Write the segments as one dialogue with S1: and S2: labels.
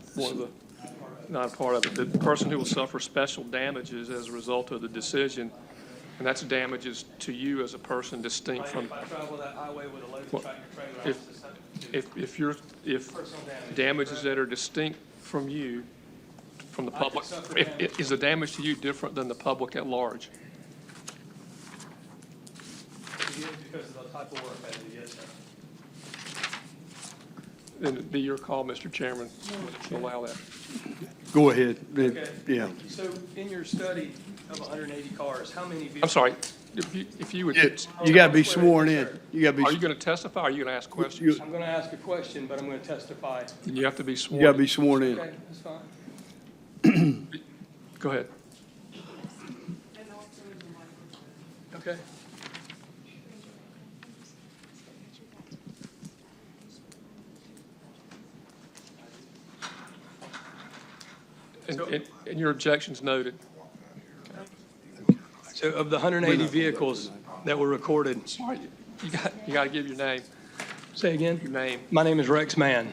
S1: for the, not part of it, the person who will suffer special damages as a result of the decision, and that's damages to you as a person distinct
S2: Like
S1: from,
S2: if I travel that highway with a loaded
S1: Well,
S2: tractor trailer, I
S1: if-
S2: was susceptible to
S1: if, if you're, if
S2: personal damage.
S1: damages that are distinct from you, from the
S2: I could
S1: public,
S2: suffer
S1: if-
S2: damage.
S1: is the damage to you different than the public at large?
S2: Because of the type of work I do, yes, sir.
S1: Then it'd be your call, Mr. Chairman, to allow that.
S3: Go ahead. It-
S2: Okay.
S3: Yeah.
S2: So in your study of 180 cars, how many vehicles?
S1: I'm sorry, if you, if you would,
S3: It-
S1: are
S3: You got to be sworn in. You got to
S1: you
S3: be,
S1: going to testify, or are you going to ask questions?
S2: I'm going to ask a question, but I'm going to testify.
S1: You have to be
S3: you got to
S1: sworn.
S3: be sworn in.
S2: Okay, that's fine.
S1: Go ahead.
S2: Okay.
S1: And, and- and your objection's noted.
S2: So of the 180 vehicles that were recorded,
S1: All right, you got, you got to give your name,
S2: say again?
S1: your name.
S2: My name is Rex Mann.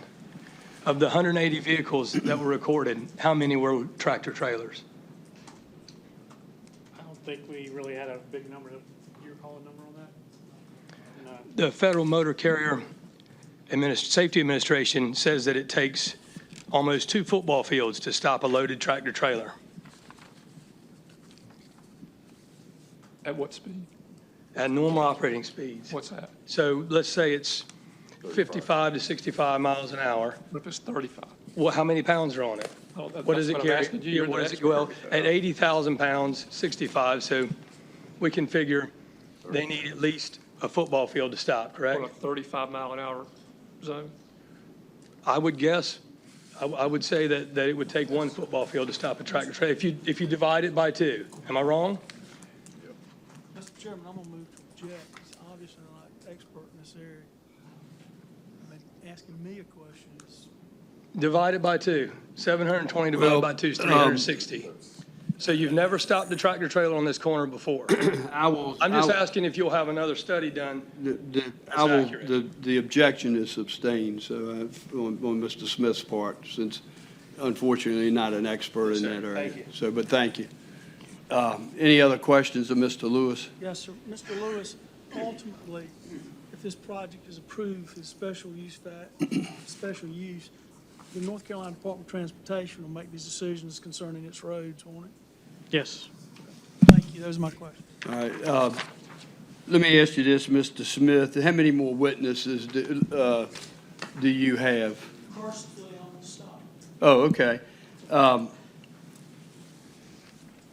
S2: Of the 180 vehicles that were recorded, how many were tractor trailers?
S4: I don't think we really had a big number. You're calling number on that? No.
S2: The Federal Motor Carrier Adminis- Safety Administration says that it takes almost two football fields to stop a loaded tractor trailer
S1: At what speed?
S2: at normal operating speeds.
S1: What's that?
S2: So let's say it's 55 to 65 miles an hour.
S1: What if it's 35?
S2: Well, how many pounds are on it?
S1: Oh, that-
S2: What does
S1: that's
S2: it
S1: what I'm
S2: carry?
S1: asking you.
S2: Yeah,
S1: You're the
S2: what does it-
S1: expert.
S2: Well, at 80,000 pounds, 65, so we can figure they need at least a football field to stop, correct?
S1: On a 35 mile an hour zone?
S2: I would guess, I, I would say that, that it would take one football field to stop a tractor trailer, if you, if you divide it by two. Am I wrong?
S5: Mr. Chairman, I'm gonna move to object. He's obviously not an expert in this area. I mean, Asking me a question is
S2: Divide it by two. 720 divided
S3: Well,
S2: by two is
S3: um,
S2: 360. So you've never stopped a tractor trailer on this corner before.
S3: I will.
S2: I'm just asking if you'll have another study done.
S3: The, the- I will,
S2: accurate.
S3: the, the objection is sustained, so, uh, on, on Mr. Smith's part, since unfortunately not an expert in that area.
S2: Thank you.
S3: So, but thank you. Um, Any other questions of Mr. Lewis?
S5: Yes, sir. Mr. Lewis, ultimately, if this project is approved as special use, fa- special use, the North Carolina Department of Transportation will make these decisions concerning its roads, won't it?
S4: Yes.
S5: Thank you. Those are my questions.
S3: All right, uh, let me ask you this, Mr. Smith, how many more witnesses do, uh, do you have?
S5: Personally, I'm gonna stop.
S3: Oh, okay. Um,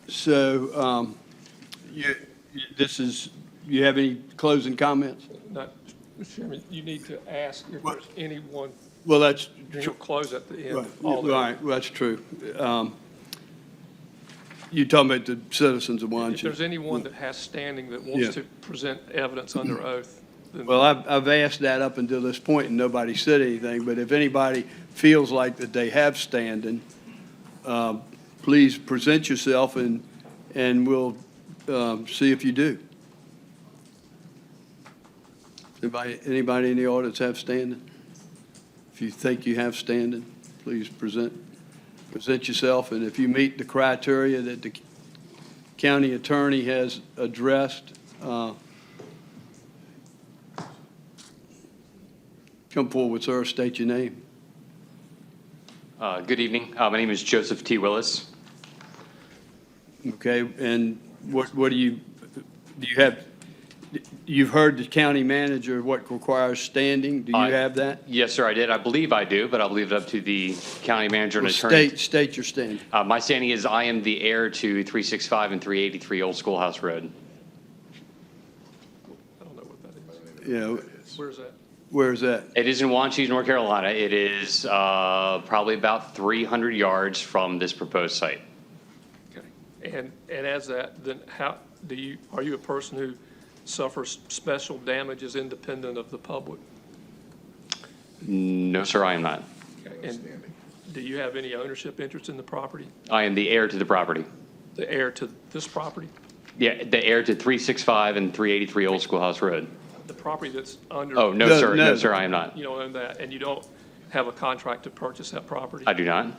S3: So, um, you, you- this is, you have any closing comments?
S1: Not, Mr. Chairman, you need to ask if
S3: What?
S1: there's anyone,
S3: Well, that's,
S1: you'll close at the end.
S3: right,
S1: of all
S3: Well,
S1: that.
S3: right, well, that's true. Um, You're talking about the citizens of
S1: If there's
S3: Washington.
S1: anyone that has standing that
S3: Yeah.
S1: wants to present evidence under oath, then
S3: Well, I've, I've asked that up until this point, and nobody said anything, but if anybody feels like that they have standing, um, please present yourself and, and we'll um, see if you do. Anybody, anybody in the audience have standing? If you think you have standing, please present, present yourself, and if you meet the criteria that the county attorney has addressed, uh, come forward, sir, state your name.
S6: Uh, Good evening. Uh, My name is Joseph T. Willis.
S3: Okay, and what, what do you, do you have, you've heard the county manager, what requires standing? Do you
S6: I-
S3: have that?
S6: Yes, sir, I did. I believe I do, but I'll leave it up to the county manager and attorney.
S3: State, state your standing.
S6: Uh, My standing is I am the heir to 365 and 383 Old Schoolhouse Road.
S1: I don't know what that
S3: You know,
S1: is. Where's that?
S3: where is that?
S6: It is in Wanchese, North Carolina. It is uh, probably about 300 yards from this proposed site.
S1: Okay. And, and as that, then how, do you, are you a person who suffers special damages independent of the public?
S6: No, sir, I am not.
S1: And do you have any ownership interest in the property,
S6: I am the heir to the property.
S1: the heir to this property?
S6: Yeah, the heir to 365 and 383 Old Schoolhouse Road.
S1: The property that's under?
S6: Oh, no,
S3: No,
S6: sir,
S3: no.
S6: no, sir, I am not.
S1: You don't own that, and you don't have a contract to purchase that property?
S6: I do not.